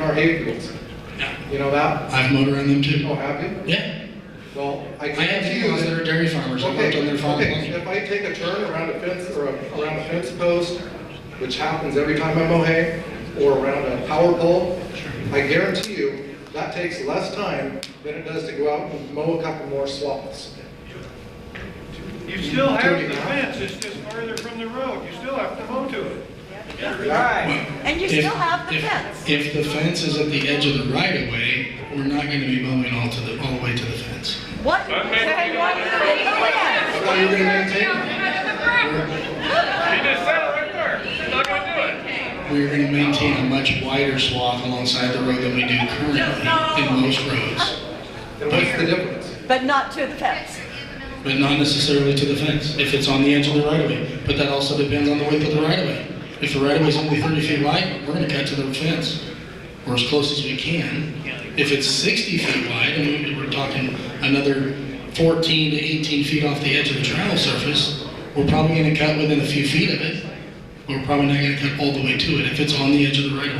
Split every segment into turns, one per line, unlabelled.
our hay fields.
Yeah.
You know that?
I've mowed around them too.
Oh, happy?
Yeah,
Well, I
I
can't
have
see
people that
you.
are dairy farmers, I worked on their farm.
Okay, if I take a turn around a fence, or a- around a fence post, which happens every time I mow hay, or around a power pole, I guarantee you, that takes less time than it does to go out and mow a couple more swaths.
You still have the fence, it's just farther from the road, you still have to mow to it.
And you
If-
still have the
if-
fence.
If the fence is at the edge of the right of way, we're not gonna be mowing all to the, all the way to the fence.
What? Say what? Yes.
How are you gonna maintain it?
You just said it right there, you're not gonna do it.
We're gonna maintain a much wider swath alongside the road than we do currently in most roads,
And what's the difference?
But not to the fence.
but not necessarily to the fence, if it's on the edge of the right of way. But that also depends on the width of the right of way. If the right of way is only thirty feet wide, we're gonna cut to the fence, or as close as we can. If it's sixty feet wide, and we- we're talking another fourteen to eighteen feet off the edge of the travel surface, we're probably gonna cut within a few feet of it. but We're probably not gonna cut all the way to it if it's on the edge of the right of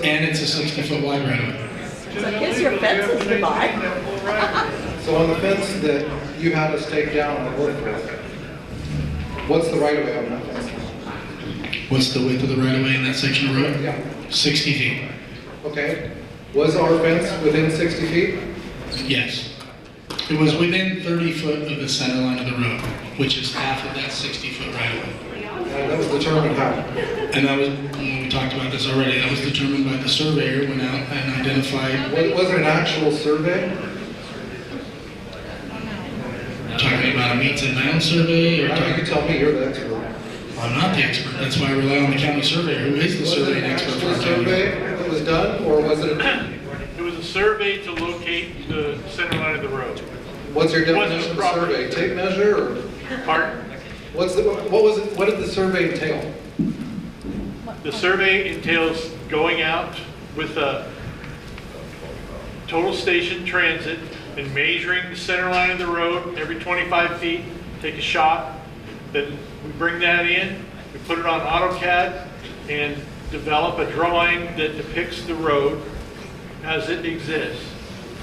way. And it's a sixty foot wide right of way.
So I guess your fence is goodbye.
That whole right of way.
So on the fence that you had us take down and work with, what's the right of way on that fence?
What's the width of the right of way in that section of road?
Yeah.
60 feet.
Okay, was our fence within 60 feet?
Yes. It was within 30 foot of the center line of the road, which is half of that 60 foot right of way.
Uh, That was determined how?
And that was, we talked about this already, that was determined by the surveyor, went out and identified,
Wa- Was it an actual survey? Uh,
talking about a meets and bounds survey,
I
or
don't know, You
talking,
tell me, you're the expert.
I'm not the expert, that's why I rely on the county surveyor, who is the
Was it
surveying
an
expert for
actual
our county.
survey that was done, or was it,
It was a survey to locate the center line of the road.
what's your
Wasn't
definition of
proper.
survey? Tape measure, or
Pardon?
what's the, what was, it? what did the survey entail?
The survey entails going out with a total station transit and measuring the center line of the road every 25 feet, take a shot, then we bring that in, we put it on AutoCAD and develop a drawing that depicts the road as it exists,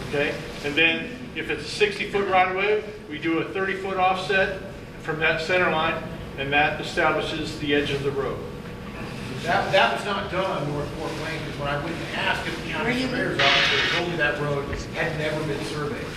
okay? And then if it's a 60-foot right-of-way, we do a 30-foot offset from that center line, and that establishes the edge of the road.
That, that was not done on North Fork Lane, because when I went and asked at the county surveyor's office, they told me that road had never been surveyed.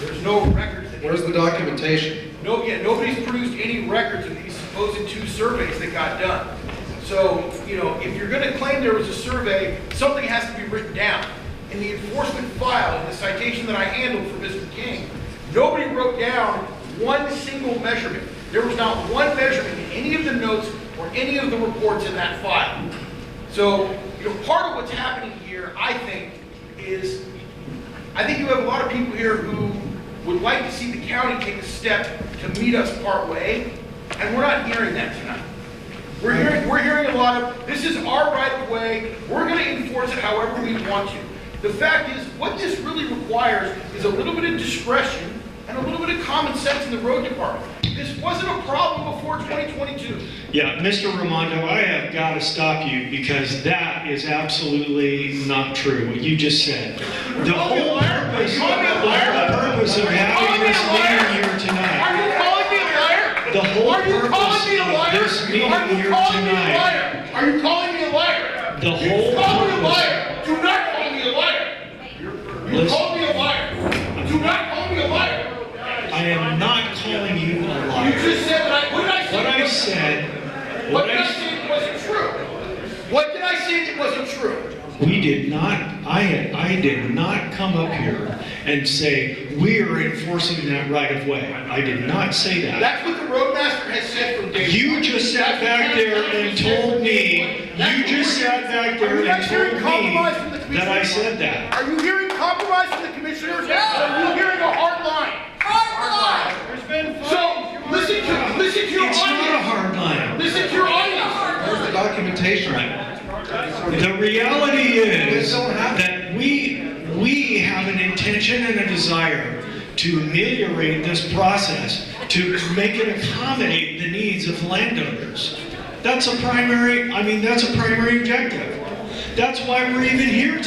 There's no records that.
Where's the documentation?
No, yeah, nobody's produced any records of these supposed two surveys that got done. So, you know, if you're gonna claim there was a survey, something has to be written down. In the enforcement file, in the citation that I handled for Mr. King, nobody wrote down one single measurement. There was not one measurement in any of the notes or any of the reports in that file. So, you know, part of what's happening here, I think, is I think you have a lot of people here who would like to see the county take a step to meet us partway, and we're not hearing that tonight. We're hearing, we're hearing a lot of, this is our right of way, we're gonna enforce it however we want to. The fact is, what this really requires is a little bit of discretion and a little bit of common sense in the road department. This wasn't a problem before 2022.
Yeah, Mr. Ramondo, I have got to stop you because that is absolutely not true, what you just said. The
call me a
whole
liar?
purpose,
You
the
call me a liar?
whole purpose of having
You
this
call me a
meeting
liar?
here
Are
tonight,
you calling me a liar?
The whole
Are you calling
purpose
me a
of
liar?
this meeting
Are you
here
calling me a
tonight-
liar? Are you calling me a liar?
The
You
whole
Call me a
purpose-
liar. Do not call me a liar. You
Listen.
called me a liar. Do not call me a liar.
I am not calling you a
You
liar.
just said that I, what did I say?
What I said,
What
what
did
I,
I say that wasn't true? What did I say that wasn't true?
s- we did not, I, had- I did not come up here and say, we are enforcing that right of way. I did not say that.
That's what the roadmaster has said from day one.
You just sat back there and told me,
That's
you
what
just
we're-
sat back
Are
there
you guys hearing
and told
compromise from the
me that I
commissioners?
said that.
Are you hearing compromise from the commissioners? Are you hearing a hard line? Hard line.
There's been fights.
So, listen to, listen to your
It's not a
audience.
hard line.
Listen to your audience.
Where's the documentation?
The reality is
They don't have-
that we, we have an intention and a desire to ameliorate this process, to make it accommodate the needs of landowners. That's a primary, I mean, that's a primary objective. That's why we're even here